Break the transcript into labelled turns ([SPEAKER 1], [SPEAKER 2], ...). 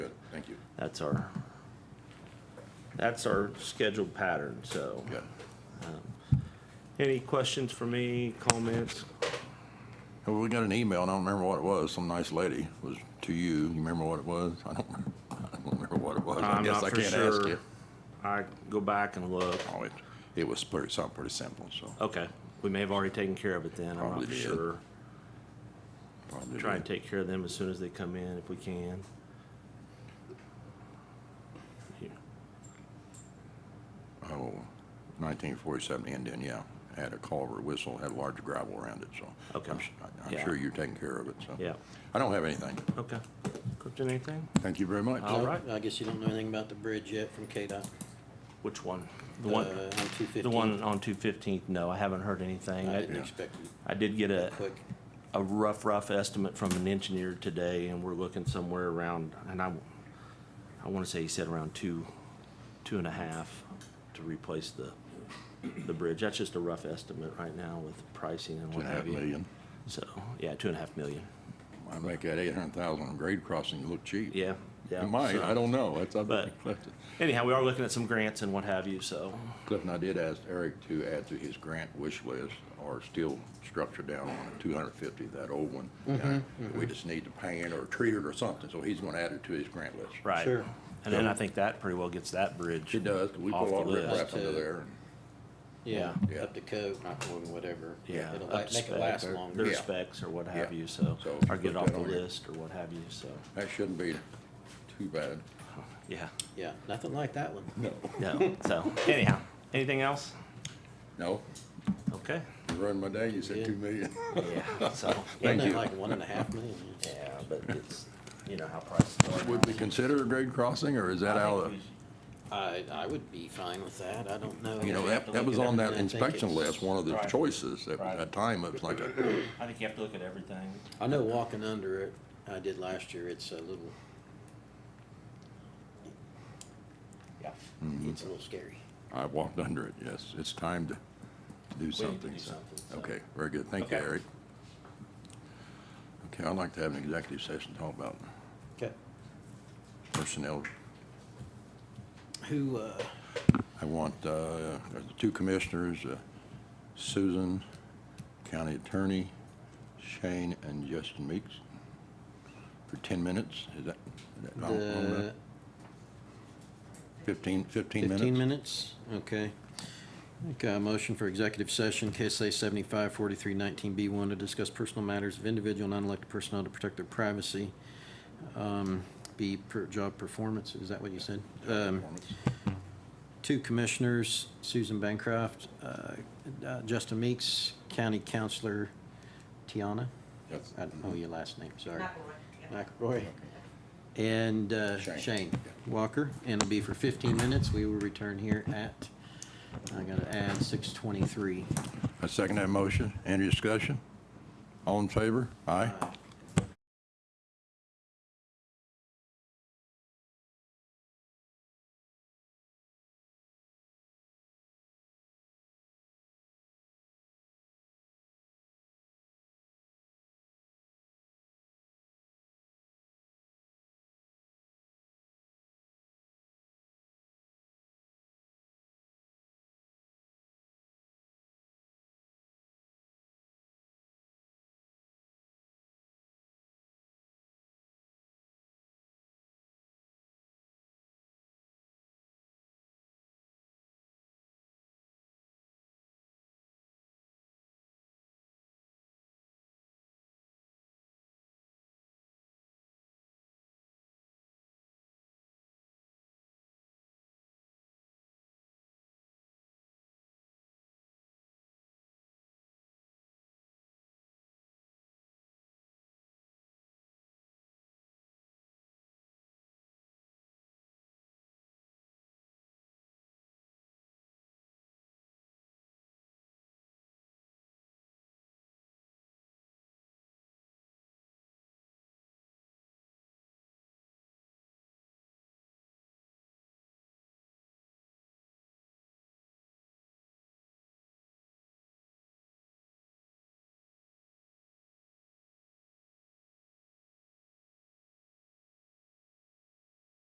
[SPEAKER 1] Thank you.
[SPEAKER 2] That's our, that's our scheduled pattern, so.
[SPEAKER 1] Yeah.
[SPEAKER 2] Any questions for me, comments?
[SPEAKER 1] Well, we got an email, and I don't remember what it was. Some nice lady was to you. You remember what it was? I don't, remember- I don't remember what it was. I
[SPEAKER 2] I'm
[SPEAKER 1] guess
[SPEAKER 2] not
[SPEAKER 1] I
[SPEAKER 2] for
[SPEAKER 1] can't ask
[SPEAKER 2] sure.
[SPEAKER 1] you.
[SPEAKER 2] I go back and look.
[SPEAKER 1] Oh, it, it was pretty, something pretty simple, so
[SPEAKER 2] Okay, we may have already taken care of it then, I'm
[SPEAKER 1] Probably
[SPEAKER 2] not for
[SPEAKER 1] did.
[SPEAKER 2] sure.
[SPEAKER 1] probably.
[SPEAKER 2] Try and
[SPEAKER 1] did.
[SPEAKER 2] take care of them as soon as they come in if we can. Here.
[SPEAKER 1] Oh, 1947 Indian, yeah. Had a culvert whistle, had a large gravel around it, so.
[SPEAKER 2] Okay.
[SPEAKER 1] I'm su- I- I'm
[SPEAKER 2] Yeah.
[SPEAKER 1] sure you're taking care of it, so.
[SPEAKER 2] Yeah,
[SPEAKER 1] I don't have anything.
[SPEAKER 2] okay. Clifton, anything?
[SPEAKER 1] Thank you very much.
[SPEAKER 2] All
[SPEAKER 3] Uh,
[SPEAKER 2] right.
[SPEAKER 3] I guess you don't know anything about the bridge yet from KDOT.
[SPEAKER 2] Which one? The one,
[SPEAKER 3] uh, On two fifteen.
[SPEAKER 2] the one on two fifteenth? No, I haven't heard anything.
[SPEAKER 3] I
[SPEAKER 2] I,
[SPEAKER 3] didn't
[SPEAKER 1] Yeah.
[SPEAKER 3] expect it
[SPEAKER 2] I did get a,
[SPEAKER 3] quick.
[SPEAKER 2] a rough, rough estimate from an engineer today, and we're looking somewhere around, and I, I wanna say he said around two, two and a half to replace the, the bridge. That's just a rough estimate right now with pricing and
[SPEAKER 1] Two
[SPEAKER 2] what
[SPEAKER 1] and a half
[SPEAKER 2] have you.
[SPEAKER 1] million.
[SPEAKER 2] So, yeah, two and a half million.
[SPEAKER 1] I make that 800,000 on grade crossing look cheap.
[SPEAKER 2] Yeah, yeah.
[SPEAKER 1] It might,
[SPEAKER 2] so-
[SPEAKER 1] I don't know. That's up to
[SPEAKER 2] But-
[SPEAKER 1] Clifton.
[SPEAKER 2] Anyhow, we are looking at some grants and what have you, so,
[SPEAKER 1] Clifton, I did ask Eric to add to his grant wish list our steel structure down on two hundred fifty, that old one. We just need to paint or treat it or something, so he's gonna add it to his grant list.
[SPEAKER 2] right.
[SPEAKER 3] Sure.
[SPEAKER 2] And then I think that pretty well gets that bridge.
[SPEAKER 1] It does, 'cause we put
[SPEAKER 2] Off
[SPEAKER 1] a
[SPEAKER 2] the
[SPEAKER 1] lot of
[SPEAKER 2] list.
[SPEAKER 1] riprap under there.
[SPEAKER 3] Yeah,
[SPEAKER 1] Yeah.
[SPEAKER 3] up to code, not going whatever.
[SPEAKER 2] Yeah.
[SPEAKER 3] It'll
[SPEAKER 2] up
[SPEAKER 3] la-
[SPEAKER 2] to
[SPEAKER 3] make it
[SPEAKER 2] spec,
[SPEAKER 3] last
[SPEAKER 2] their-
[SPEAKER 3] longer.
[SPEAKER 2] Their
[SPEAKER 1] Yeah.
[SPEAKER 2] specs or what have
[SPEAKER 1] Yeah.
[SPEAKER 2] you, so,
[SPEAKER 1] So
[SPEAKER 2] or
[SPEAKER 1] put
[SPEAKER 2] get it off
[SPEAKER 1] that
[SPEAKER 2] the
[SPEAKER 1] on your-
[SPEAKER 2] list or what have you, so,
[SPEAKER 1] That shouldn't be too bad.
[SPEAKER 2] yeah.
[SPEAKER 3] Yeah, nothing like that one.
[SPEAKER 1] No.
[SPEAKER 2] No, so anyhow, anything else?
[SPEAKER 1] No,
[SPEAKER 2] Okay.
[SPEAKER 1] you ruined my day, you said
[SPEAKER 3] Yeah.
[SPEAKER 1] two million.
[SPEAKER 2] Yeah, so,
[SPEAKER 1] Thank
[SPEAKER 3] Wasn't it
[SPEAKER 1] you.
[SPEAKER 3] Like one and a half million.
[SPEAKER 2] yeah, but it's, you know, how prices are.
[SPEAKER 1] Would we consider a grade crossing, or is that
[SPEAKER 2] I
[SPEAKER 1] out
[SPEAKER 2] think
[SPEAKER 1] of?
[SPEAKER 2] we-
[SPEAKER 3] I, I would be fine with that. I don't know.
[SPEAKER 1] You know,
[SPEAKER 3] I'd have to
[SPEAKER 1] that, that
[SPEAKER 3] look
[SPEAKER 1] was
[SPEAKER 3] at
[SPEAKER 1] on that
[SPEAKER 3] everything. I think
[SPEAKER 1] inspection
[SPEAKER 3] it's-
[SPEAKER 1] list, one of the
[SPEAKER 2] Right.
[SPEAKER 1] choices at
[SPEAKER 2] Right.
[SPEAKER 1] that time, it was like a,
[SPEAKER 2] I think you have to look at everything.
[SPEAKER 3] I know walking under it, I did last year, it's a little,
[SPEAKER 2] Yeah.
[SPEAKER 1] Mm-hmm.
[SPEAKER 3] it's a little scary.
[SPEAKER 1] I walked under it, yes, it's time to do
[SPEAKER 2] to
[SPEAKER 1] something.
[SPEAKER 2] do
[SPEAKER 1] so-
[SPEAKER 2] something, so.
[SPEAKER 1] Okay, very good, thank you,
[SPEAKER 2] Okay.
[SPEAKER 1] Eric. Okay, I'd like to have an executive session, to talk about
[SPEAKER 3] Okay.
[SPEAKER 1] personnel.
[SPEAKER 3] Who, uh,
[SPEAKER 1] I want, uh, the two commissioners, uh, Susan, county attorney, Shane and Justin Meeks, for ten minutes, is that? is that long- long enough?
[SPEAKER 3] the
[SPEAKER 1] Fifteen, fifteen minutes?
[SPEAKER 3] 15 minutes? Okay. Okay, a motion for executive session, KSA 754319B1, to discuss personal matters of individual non-elected personnel to protect their privacy. Um, B, per job performance, is that what you said? Um, Two commissioners, Susan Bancroft, uh, uh, Justin Meeks, County Counselor Tiana.
[SPEAKER 1] Yes.
[SPEAKER 3] I don't know your last name, sorry.
[SPEAKER 4] McElroy. yeah.
[SPEAKER 3] McElroy. And uh,
[SPEAKER 1] Shane.
[SPEAKER 3] Shane Walker, and it'll be for 15 minutes. We will return here at, I gotta add 6:23.
[SPEAKER 1] I second that motion. Any discussion? All in favor? Aye.